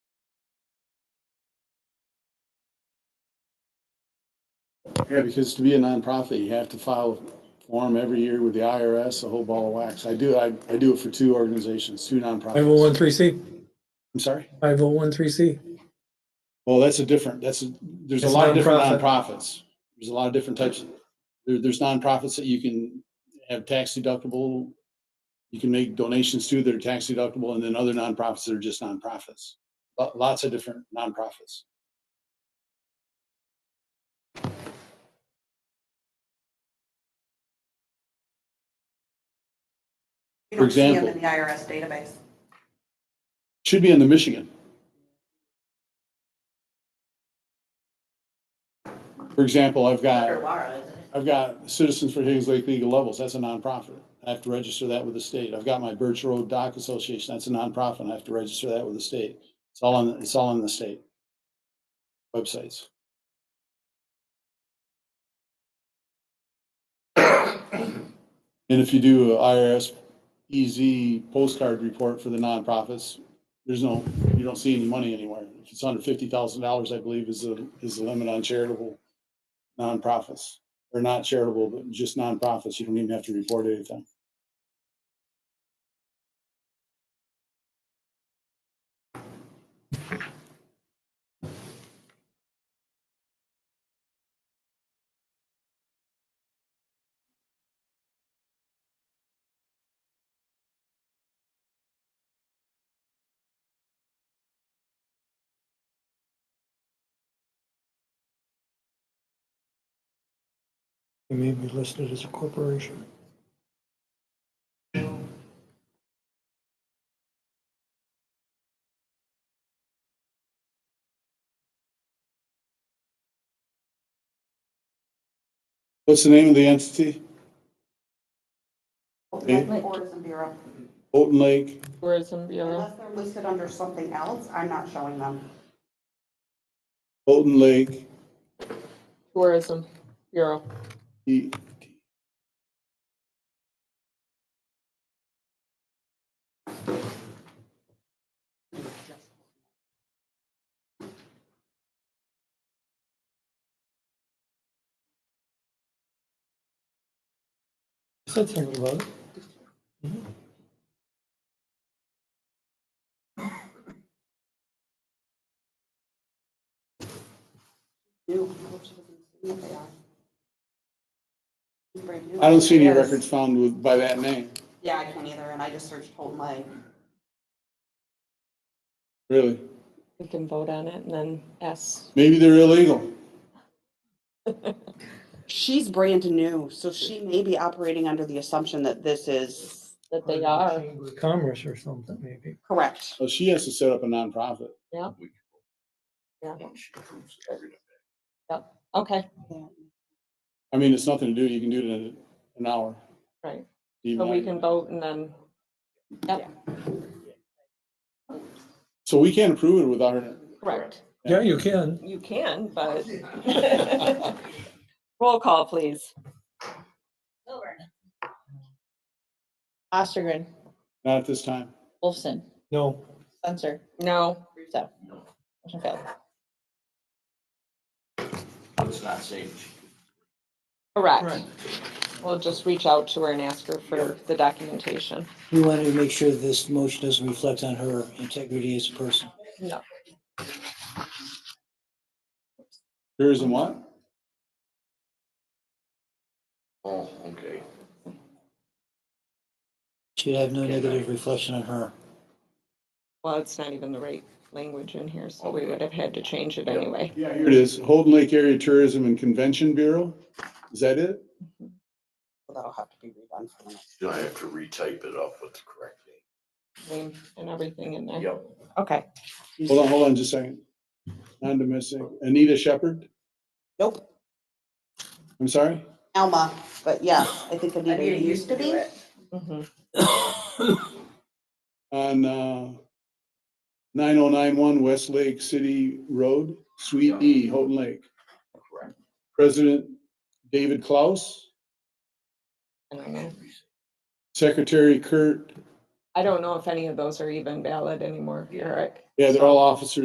Yeah, because to be a nonprofit, you have to file a form every year with the IRS, a whole ball of wax. I do, I, I do it for two organizations, two nonprofits. 5013C, I'm sorry? 5013C. Well, that's a different, that's, a there's a It's lot of different nonprofit. nonprofits. There's a lot of different types. There, there's nonprofits that you can have tax deductible. You can make donations to that are tax deductible and then other nonprofits that are just nonprofits. Lo- Lots of different nonprofits. You For don't see them example. in the IRS database. Should be in the Michigan. For example, I've got, Under Laura, isn't it? I've got Citizens for Higgins Lake League of Levels, that's a nonprofit. I have to register that with the state. I've got my Birch Road Dock Association, that's a nonprofit, I have to register that with the state. It's all on, it's all on the state websites. And if you do a IRS EZ E postcard report for the nonprofits, there's no, you don't see any money anywhere. If it's under fifty thousand dollars, I believe is the, is the limit on charitable nonprofits. Or not charitable, but just nonprofits. You don't even have to report anything. It may be listed as a corporation. What's the name of the entity? Oakland Tourism Bureau. Houghton Lake? Tourism Bureau. Unless they're listed under something else, I'm not showing them. Houghton Lake. Tourism Bureau. E- Said something about it. Ew, I wish I was gonna see what they are. It's brand new. I don't see any Yes. records found with, by that name, Yeah, I can't either, and I just searched Holton Lake. really. We can vote on it and then ask. Maybe they're illegal. She's brand new, so she may be operating under the assumption that this is That they are. Chamber of Commerce or something, maybe. correct. Well, she has to set up a nonprofit. Okay, I mean, it's nothing to do. You can do it in an hour. right. Even So we that. can vote and then, So we can't approve it without her. correct. Yeah, you can. You can, but. Roll call, please. Ostergren, Not at this time. Wolfson, No, Censor, No, Russo. Motion failed. It's not safe. correct. We'll just reach out to her and ask her for the documentation. We wanted to make sure this motion doesn't reflect on her integrity as a person. Tourism what? Oh, okay. Should have no negative reflection on her. Well, it's not even the right language in here, so we would have had to change it anyway. Yeah, here it is. Holden Lake Area Tourism and Convention Bureau. Is that it? That'll have to be redone for the next. Then I have to retype it up with the correct Name And everything in name. there. Yep. Okay, Hold on, hold on just a second. Non-domestic. Anita Shepherd? Nope, I'm sorry? Alma, but yeah, I think Anita Anita used to be. mhm. On, uh, 9091 West Lake City Road, Suite E, Houghton Lake. Correct. President David Klaus, I don't know. Secretary Kurt, I don't know if any of those are even valid anymore, Yeah. Eric. yeah, they're all officers